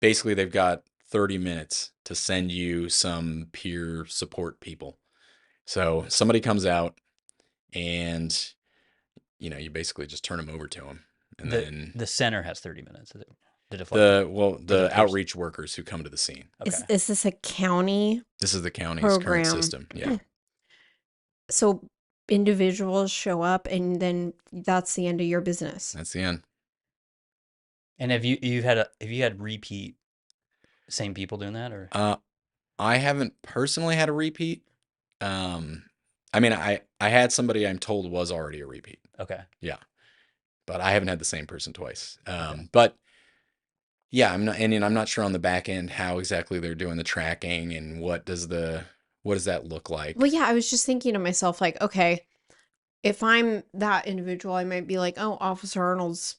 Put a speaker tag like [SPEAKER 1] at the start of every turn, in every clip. [SPEAKER 1] basically they've got 30 minutes to send you some peer support people. So somebody comes out and you know, you basically just turn them over to them. And
[SPEAKER 2] the,
[SPEAKER 1] then
[SPEAKER 2] the center has 30 minutes to, to deflect.
[SPEAKER 1] the well,
[SPEAKER 2] the
[SPEAKER 1] the
[SPEAKER 2] peers.
[SPEAKER 1] outreach workers who come to the scene.
[SPEAKER 2] okay.
[SPEAKER 3] Is, is this a county?
[SPEAKER 1] This is the county's
[SPEAKER 3] Program.
[SPEAKER 1] current system. Yeah.
[SPEAKER 3] So individuals show up and then that's the end of your business.
[SPEAKER 1] That's the end.
[SPEAKER 2] and have you you've had a have you had repeat same people doing that or
[SPEAKER 1] Uh, I haven't personally had a repeat. Um, I mean, I I had somebody I'm told was already a repeat,
[SPEAKER 2] okay
[SPEAKER 1] but I haven't had the same person twice. Um, but yeah, I'm not, and, you know, I'm not sure on the back end how exactly they're doing the tracking and what does the what does that look like?
[SPEAKER 3] Well, yeah, I was just thinking to myself, like, okay, if I'm that individual, I might be like, oh, Officer Arnold's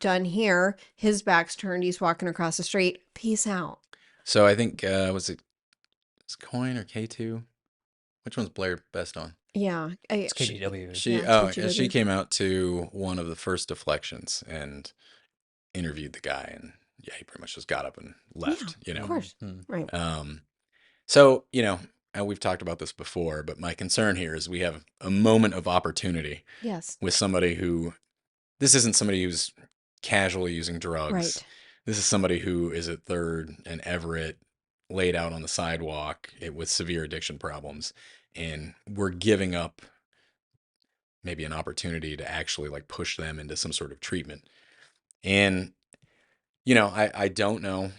[SPEAKER 3] done here. His back's turned. He's walking across the street. Peace out.
[SPEAKER 1] So I think uh, was it was it Coin or K2? Which one's Blair best on?
[SPEAKER 3] Yeah. I,
[SPEAKER 2] it's
[SPEAKER 1] she-
[SPEAKER 2] KGW
[SPEAKER 1] She
[SPEAKER 3] Yeah,
[SPEAKER 1] oh
[SPEAKER 3] that's what she
[SPEAKER 1] yeah,
[SPEAKER 3] did,
[SPEAKER 1] she
[SPEAKER 3] yeah.
[SPEAKER 1] came out to one of the first deflections and interviewed the guy and yeah he pretty much just got up and left you know
[SPEAKER 3] Of course.
[SPEAKER 2] Mhm.
[SPEAKER 3] Right.
[SPEAKER 1] um so you know and we've talked about this before but my concern here is we have a moment of opportunity
[SPEAKER 3] Yes.
[SPEAKER 1] with somebody who this isn't somebody who's casually using drugs
[SPEAKER 3] Right.
[SPEAKER 1] this is somebody who is at third and Everett laid out on the sidewalk it, with severe addiction problems. And we're giving up maybe an opportunity to actually like push them into some sort of treatment. And, you know, I, I don't know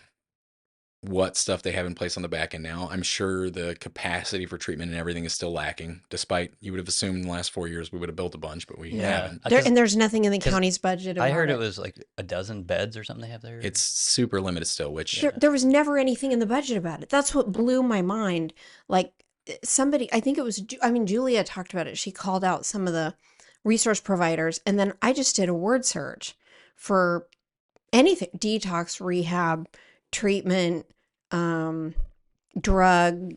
[SPEAKER 1] what stuff they have in place on the back end now. I'm sure the capacity for treatment and everything is still lacking, despite you would have assumed in the last four years we would have built a bunch, but we haven't.
[SPEAKER 2] I-
[SPEAKER 3] There,
[SPEAKER 2] 'cause
[SPEAKER 3] and there's nothing in the
[SPEAKER 2] 'cause
[SPEAKER 3] county's budget.
[SPEAKER 2] I
[SPEAKER 3] about
[SPEAKER 2] heard it was like a dozen beds or something they have there
[SPEAKER 1] It's super limited still, which
[SPEAKER 3] There, there was never anything in the budget about it. That's what blew my mind. Like eh, somebody, I think it was, Ju- I mean, Julia talked about it. She called out some of the resource providers, and then I just did a word search for anything detox, rehab, treatment, um, drug,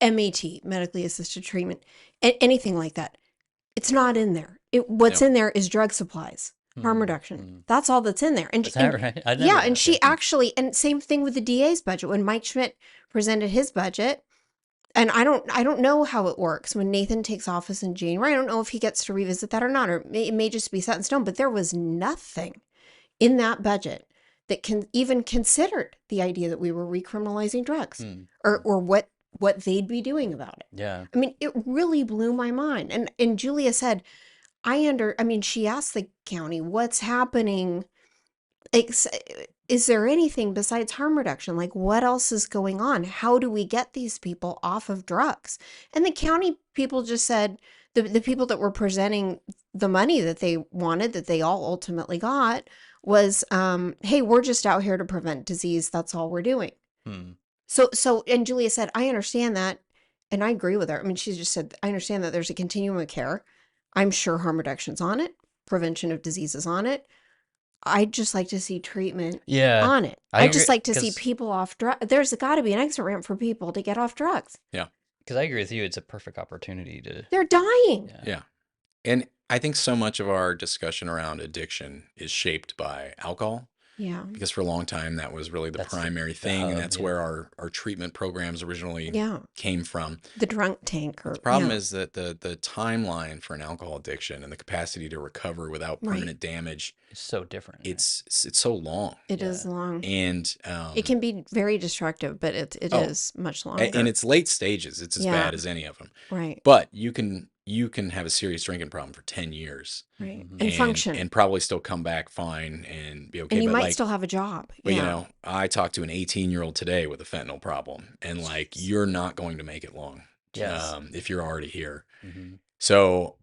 [SPEAKER 3] eh, MET, medically assisted treatment, a- anything like that. It's not in there. It, what's
[SPEAKER 1] No.
[SPEAKER 3] in there is drug supplies, harm
[SPEAKER 2] Mhm,
[SPEAKER 3] reduction.
[SPEAKER 2] mhm.
[SPEAKER 3] That's all that's in there. And,
[SPEAKER 2] Is
[SPEAKER 3] and
[SPEAKER 2] that right? I never
[SPEAKER 3] yeah, and
[SPEAKER 2] noticed
[SPEAKER 3] she
[SPEAKER 2] it.
[SPEAKER 3] actually, and same thing with the DA's budget. When Mike Schmidt presented his budget, and I don't, I don't know how it works when Nathan takes office in January. I don't know if he gets to revisit that or not, or it may, it may just be set in stone. But there was nothing in that budget that can even considered the idea that we were recriminalizing drugs
[SPEAKER 2] Mm,
[SPEAKER 3] or or what what they'd be doing about it.
[SPEAKER 2] yeah.
[SPEAKER 3] I mean, it really blew my mind. And and Julia said, I under I mean, she asked the county, what's happening? Ex- is there anything besides harm reduction? Like what else is going on? How do we get these people off of drugs? And the county people just said the, the people that were presenting the money that they wanted, that they all ultimately got, was um, hey, we're just out here to prevent disease. That's all we're doing.
[SPEAKER 2] Mm.
[SPEAKER 3] So, so, and Julia said, I understand that. And I agree with her. I mean, she just said, I understand that there's a continuum of care. I'm sure harm reduction's on it, prevention of diseases on it. I'd just like to see treatment
[SPEAKER 1] Uh,
[SPEAKER 2] Yeah.
[SPEAKER 3] on it.
[SPEAKER 2] I
[SPEAKER 3] I would just
[SPEAKER 2] agree,
[SPEAKER 3] like to see
[SPEAKER 2] 'cause-
[SPEAKER 3] people off drugs. There's got to be an exit ramp for people to get off drugs.
[SPEAKER 2] Because I agree with you. It's a perfect opportunity to.
[SPEAKER 3] They're dying.
[SPEAKER 2] Yeah.
[SPEAKER 1] Yeah. And I think so much of our discussion around addiction is shaped by alcohol
[SPEAKER 3] Yeah.
[SPEAKER 1] because for a long time that was really the
[SPEAKER 2] That's the-
[SPEAKER 1] primary
[SPEAKER 2] the
[SPEAKER 1] thing
[SPEAKER 2] hub,
[SPEAKER 1] and that's
[SPEAKER 2] yeah.
[SPEAKER 1] where our, our treatment programs originally
[SPEAKER 3] Yeah.
[SPEAKER 1] came from.
[SPEAKER 3] The drunk tank. Or,
[SPEAKER 1] The problem
[SPEAKER 3] yeah.
[SPEAKER 1] is that the the timeline for an alcohol addiction and the capacity to recover without
[SPEAKER 3] Right.
[SPEAKER 1] permanent damage
[SPEAKER 2] It's so different. right?
[SPEAKER 1] it's it's so long
[SPEAKER 3] it is
[SPEAKER 2] yeah.
[SPEAKER 3] long.
[SPEAKER 1] and um
[SPEAKER 3] Mm-hmm. it can be very destructive, but it, it is
[SPEAKER 1] Oh,
[SPEAKER 3] much
[SPEAKER 1] a-
[SPEAKER 3] longer.
[SPEAKER 1] in its late stages it's as
[SPEAKER 3] Yeah.
[SPEAKER 1] bad as any of them.
[SPEAKER 3] right.
[SPEAKER 1] But you can you can have a serious drinking problem for 10 years
[SPEAKER 3] Right.
[SPEAKER 2] Mhm.
[SPEAKER 3] And, function.
[SPEAKER 1] and probably still come back fine and be okay
[SPEAKER 3] and you
[SPEAKER 1] but
[SPEAKER 3] might
[SPEAKER 1] like
[SPEAKER 3] still have a job.
[SPEAKER 1] But
[SPEAKER 3] yeah.
[SPEAKER 1] you know, I talked to an 18 year old today with a fentanyl problem, and like
[SPEAKER 3] Jeez.
[SPEAKER 1] you're not going to make it long
[SPEAKER 2] Yes.
[SPEAKER 1] um, if you're already here.
[SPEAKER 2] Mhm.
[SPEAKER 1] So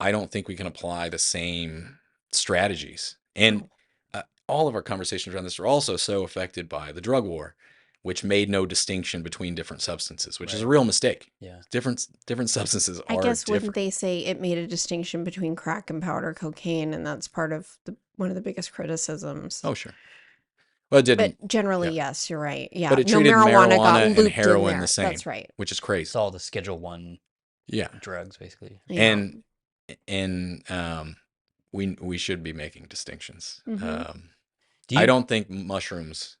[SPEAKER 1] I don't think we can apply the same strategies. And uh, all of our conversations around this are also so affected by the drug war, which made no distinction between different substances, which is a
[SPEAKER 2] Right.
[SPEAKER 1] real mistake.
[SPEAKER 2] Yeah.
[SPEAKER 1] Different different substances
[SPEAKER 3] I
[SPEAKER 1] are
[SPEAKER 3] guess wouldn't
[SPEAKER 1] different.
[SPEAKER 3] they say it made a distinction between crack and powder cocaine, and that's part of the, one of the biggest criticisms.
[SPEAKER 1] oh sure. Well, it didn't,
[SPEAKER 3] but generally, yes, you're right. Yeah,
[SPEAKER 1] it treated marijuana and
[SPEAKER 3] looped in
[SPEAKER 1] heroin the
[SPEAKER 3] there.
[SPEAKER 1] same.
[SPEAKER 3] That's right.
[SPEAKER 1] which is
[SPEAKER 2] It's
[SPEAKER 1] crazy.
[SPEAKER 2] all the Schedule One
[SPEAKER 1] Yeah.
[SPEAKER 2] drugs, basically.
[SPEAKER 3] Yeah.
[SPEAKER 1] and and um we we should be making distinctions
[SPEAKER 3] Mhm.
[SPEAKER 1] um
[SPEAKER 2] Do you,
[SPEAKER 1] i don't think mushrooms